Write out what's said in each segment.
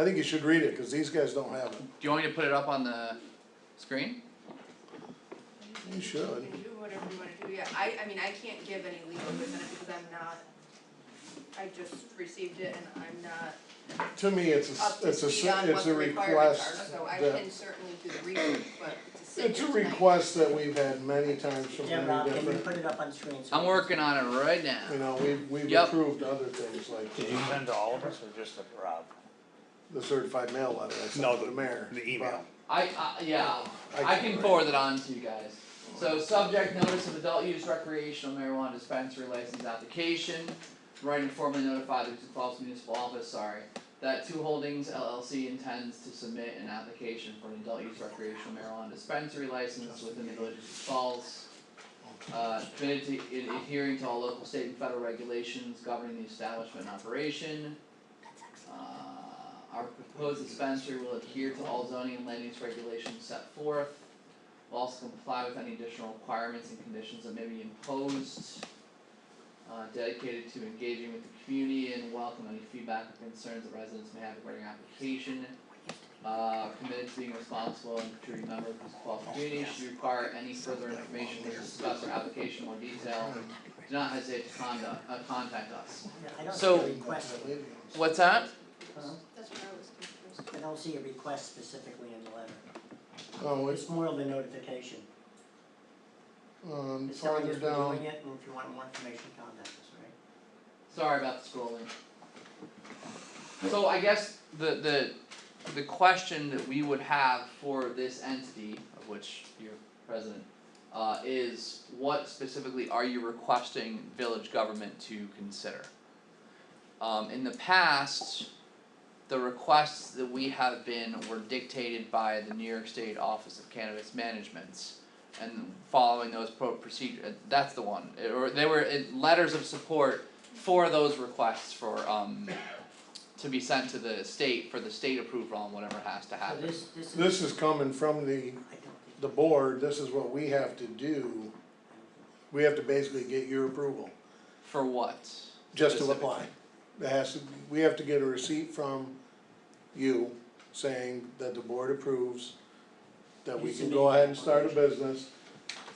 I think you should read it, cause these guys don't have it. Do you want me to put it up on the screen? You should. You do whatever you wanna do, yeah, I, I mean, I can't give any legal advice on it because I'm not, I just received it and I'm not To me, it's a, up s- to it's a, speed s- on what it's the a requirements are, request so I that- can certainly do the research, but to sit It's here a tonight. request that we've had many times from Yeah, Rob, many can you different, put it up on screen? so- I'm working on it right you now. know, we've, we've Yep. approved other things like Did you send to all of us or just to Rob? the certified mail letter I No, sent to the mayor. the email. I, I, yeah, I I can- can forward it on to you guys. So subject notice of adult use recreational marijuana dispensary license application. Write and formally notify the Sioux Falls Municipal Office, sorry, that Two Holdings LLC intends to submit an application for an adult use recreational marijuana dispensary license within the village of Sioux Falls. Uh, committed to in adhering to all local, state and federal regulations governing the establishment and operation. Uh, our proposed dispensary will adhere to all zoning and land use regulations set forth. Will also comply with any additional requirements and conditions that may be imposed. Uh, dedicated to engaging with the community and welcome any feedback or concerns that residents may have regarding application. Uh, committed to being responsible and contributing member of this qualified community, should you require any further information or discuss our application in more detail, do not hesitate to conduct, uh, contact us. Yeah, I don't see So- a request, What's that? huh? That's what I was confused. I don't see a request specifically in the letter. Oh, it's, It's more of a notification. um, It's telling farther us we're down, doing it, and if you want more information, contact us, right? Sorry about the scrolling. So I guess the the the question that we would have for this entity, of which you're president, uh is what specifically are you requesting village government to consider? Um in the past, the requests that we have been were dictated by the New York State Office of Cannabis Management's and following those pro- procedure, uh, that's the one, or they were uh, letters of support for those requests for um to be sent to the state for the state approval on whatever has to So happen. this, this is, Uh, this is coming from the, I don't think, the board, this is what we have to do. We have to basically get your approval, For what? just to Specifically. apply. It has to, we have to get a receipt from you saying that the board approves, that we can You submit go your ahead and start a business,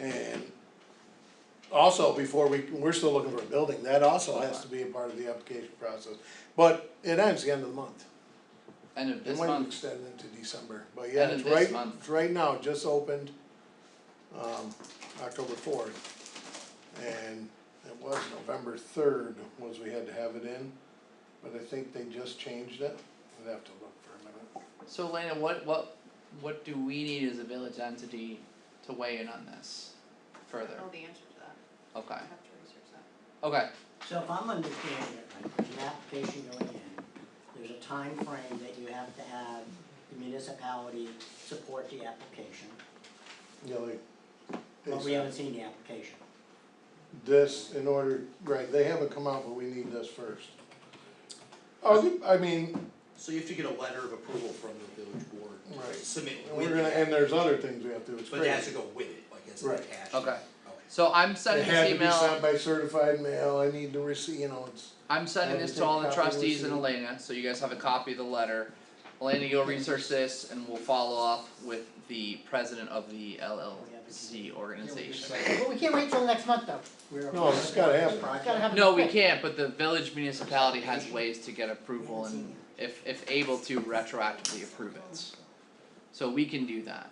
and also, before we, we're still looking for a building, that also has to be a part of the application process. But it ends the end of the month. End of It this might month, extend into December, but yeah, End of it's this right, month. it's right now, just opened, um, October fourth. And it was November third was we had to have it in, but I think they just changed it, we'd have to look for a minute. so Elena, what what what do we need as a village entity to weigh in on this I further? don't know the answer to that, Okay, I have to research that. okay, so if I'm understanding it right, there's an application going in, there's a time frame that you have to have the municipality support the application, You know, like, but we it's- haven't seen the application. this in order, right, they haven't come out, but we need this first. Oh, I mean, So you have to get a letter of approval from the village board. Right. Submit and with we're gonna, it, and there's other things we have to, it's but it has crazy. to go with it, like it's Right. attached. Okay. so I'm It sending had this to be sent email, by certified mail, I need to receive, you know, it's. I'm sending I this will to take all the copy of trustees and receipt. Elena, so you guys have a copy of the letter. Elena, you'll research this and we'll follow up with the president of the LLC organization. Well, we can't wait till next month though. We're No, it's gotta happen. project. Gotta have it No, we quick. can't, but the village municipality has ways to get approval and if if able to retroactively approve it. So we can do that.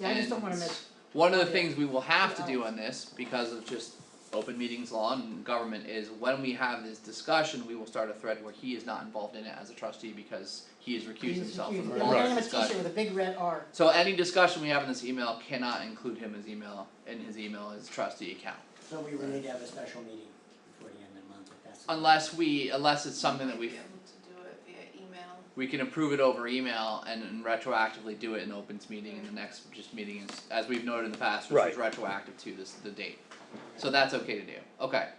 Yeah, I just don't And wanna miss. One of the things we will have to do on this, because of just open meetings law and government, is when we have this discussion, we will start a thread where he is not involved in it as a trustee because he has recused himself from You're all gonna this have a t-shirt discussion. with a big red R. So any discussion we have in this email cannot include him as email, in his email, his trustee account. So we will need to have a special meeting before the end of the month, if that's. Unless we, unless it's something that Might we Be able to do it via email. we can approve it over email and, and retroactively do it in opens meeting in the next just meeting is, as we've noted in the past, which is retroactive to this, the date. So that's okay to do, okay.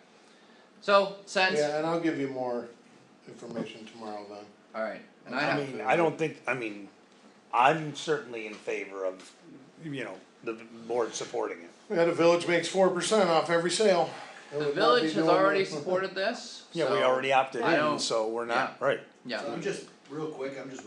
So, since, Yeah, and I'll give you more information tomorrow then. alright, and I I have, mean, I don't think, I mean, I'm certainly in favor of, you know, the board supporting it. We had a village makes four percent off every sale. It the would not be village has doing already that. supported this, Yeah, we so- already opted I don't- in, so we're not, right. Yeah. So I'm just, real quick, I'm just